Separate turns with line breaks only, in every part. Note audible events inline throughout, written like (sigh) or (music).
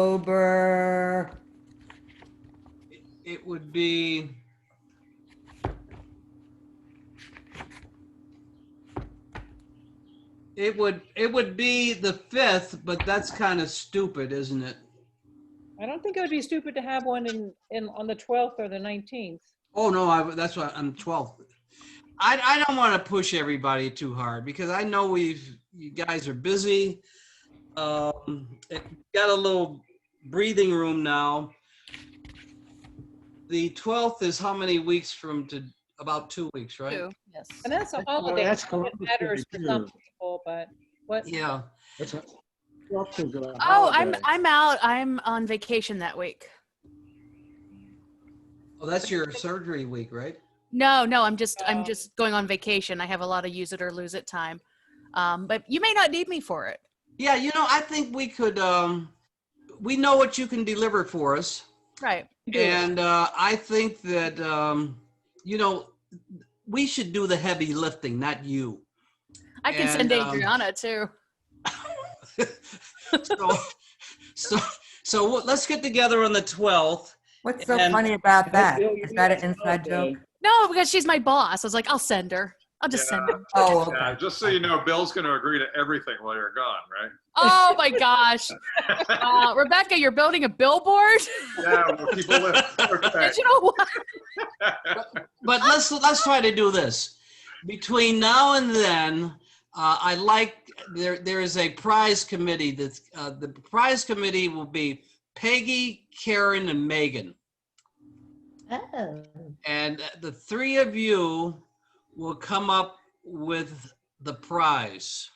October,
It would be. It would, it would be the fifth, but that's kind of stupid, isn't it?
I don't think it would be stupid to have one in, in, on the 12th or the 19th.
Oh, no, I, that's why I'm 12. I, I don't want to push everybody too hard because I know we've, you guys are busy. Um, it- got a little breathing room now. The 12th is how many weeks from to, about two weeks, right?
Two, yes.
And that's a
Well,
holiday.
that's
It
Columbus Day,
matters for some
too.
people, but what,
Yeah.
That's a- Twelfth is a
Oh, I'm
holiday.
I'm out. I'm on vacation that week.
Well, Oh, that's your surgery week, right?
No, no, I'm just
Oh.
I'm just going on vacation. I have a lot of use it or lose it time. Um, but you may not need me for it.
Yeah, you know, I think we could, um, we know what you can deliver for us.
Right. Do it.
And, uh, I think that, um, you know, we should do the heavy lifting, not you. (laughs)
I can
and,
send
um,
Adriana too.
so, (laughs) so, so what- let's get together on the 12th.
what's so
And-
funny about that?
Bill, you
Is that
need
an
to
inside
holiday.
joke?
No, because she's my boss. I was like, I'll send her. I'll just send her.
Oh, okay.
Yeah, just so you know, Bill's going to agree to everything while you're gone, right?
(laughs) Oh
(laughs)
my gosh. Uh, Rebecca, you're building a billboard?
(laughs) Yeah, we'll keep a list.
(laughs)
Okay.
Digital one?
But let's, let's try to do this. Between now and then, uh, I like, there, there is a prize committee that's, uh, the prize committee will be Peggy, Karen, and Megan.
Oh,
And the three of you will come up with the prize.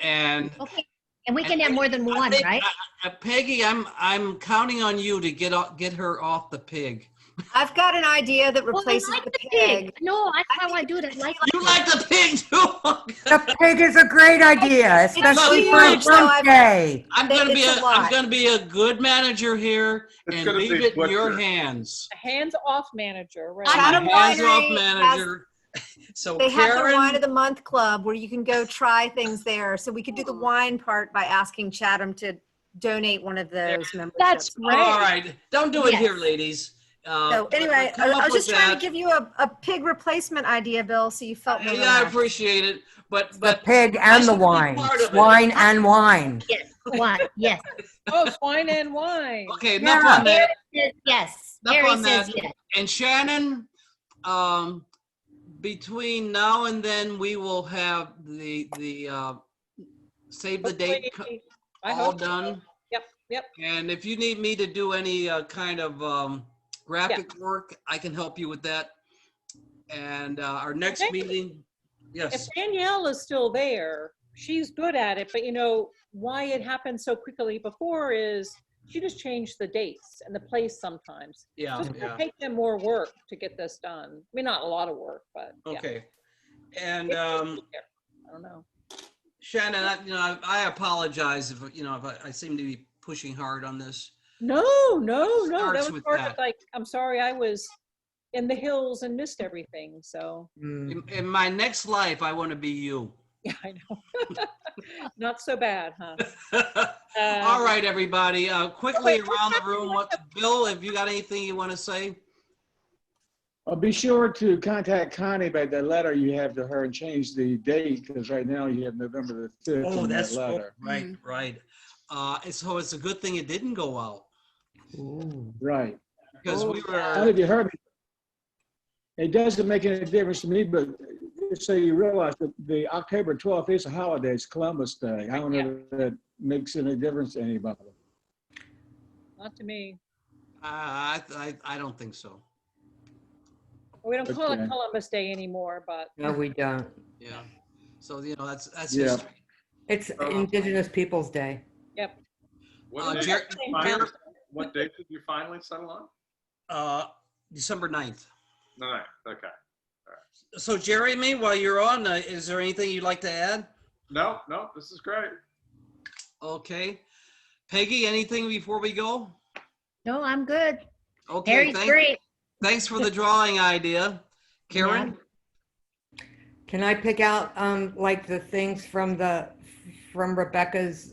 And
okay. And we can have more than
I
one,
think-
right?
uh, Peggy, I'm, I'm counting on you to get, off- get her off the pig.
I've got an idea that
Well, I
replaces
like
the pig.
No, I how I do it. I like.
You like the pig too? (laughs)
The pig is a great idea, especially for a
huge, so I've-
birthday.
I'm gonna be, a
It's a lot.
am gonna be a good manager here
It's
and
gonna
leave
be
it in your
butcher.
hands.
a hands-off manager, right?
I
I'm
had
a
a
hands-off
winery,
manager. (laughs) So
They have their wine of
Karen,
the month club where you can go try things there. So we could do the
Oh.
wine part by asking Chatham to donate one of those memberships.
That's
all
Oh,
great.
right, don't do it
Yes.
here, ladies. Uh,
So
but- but
anyway, I
come up
I was
with
just trying
that.
to give you a, a pig replacement idea, Bill, so you felt more
Yeah, I
relaxed.
appreciate it, but,
The
but
pig
I
and the
should be
wine.
part of it.
Wine and wine.
Yes, one. Yes,
Oh, wine and wine.
Okay, enough
Yeah.
on that.
yes, yes.
Up
Harry
on
says
that.
yes.
And Shannon, um, between now and then, we will have the, the, uh, save the date co-
Hopefully- I
all
hope so.
done.
Yep, yep.
And if you need me to do any, uh, kind of, um, graphic work, I can help you with that. And, uh, our next
Thank you.
meeting,
If
yes,
Danielle is still there, she's good at it, but you know, why it happened so quickly before is she just changed the dates and the place sometimes.
yeah,
Just gonna
yeah,
take them more work to get this done. I mean, not a lot of work, but yeah.
okay. And,
It's just
um,
there. I don't know.
Shannon, I, you know, I- I apologize if, you know, if I, I seem to be pushing hard on this.
No, no, no.
starts
That was
with
part of
that.
like, I'm sorry, I was in the hills and missed everything. So, (laughs)
Mm.
In, in my next life, I want to be you. (laughs)
yeah, I know. (laughs) Not so bad, huh? Uh,
(laughs) All right, everybody, uh, quickly
wait, what's
around the
happening
room,
with
what, Bill, have you got anything you want to say?
Uh, be sure to contact Connie by the letter you have to her and change the date because right now you have November the 5th. in that letter.
Right, right. Uh, and so it's a good thing it didn't go out
Right.
because we
I don't know
were, uh,
if you heard me. It doesn't make any difference to me, but so you realize that the October 12th is a holiday. It's Columbus Day. I don't know if that makes any difference to anybody.
Not to me.
I, I, I don't think so.
We don't call it
Okay.
Columbus Day anymore, but
No, we don't.
Yeah. So, you know, that's, that's,
Yeah.
history.
It's
Oh,
Indigenous Peoples' Day.
What
uh,
date-
(laughs)
Jer-
finally-
Jer-
What date did you finally settle on?
uh, December 9th.
No, no, okay.
So Jeremy, while you're on, uh, is there anything you'd like to add?
No, no, this is great.
Okay. Peggy, anything before we go?
No, I'm good.
Okay,
Harry's
thank,
great.
thanks for the drawing idea. Karen?
Can I pick out, um, like the things from the, from Rebecca's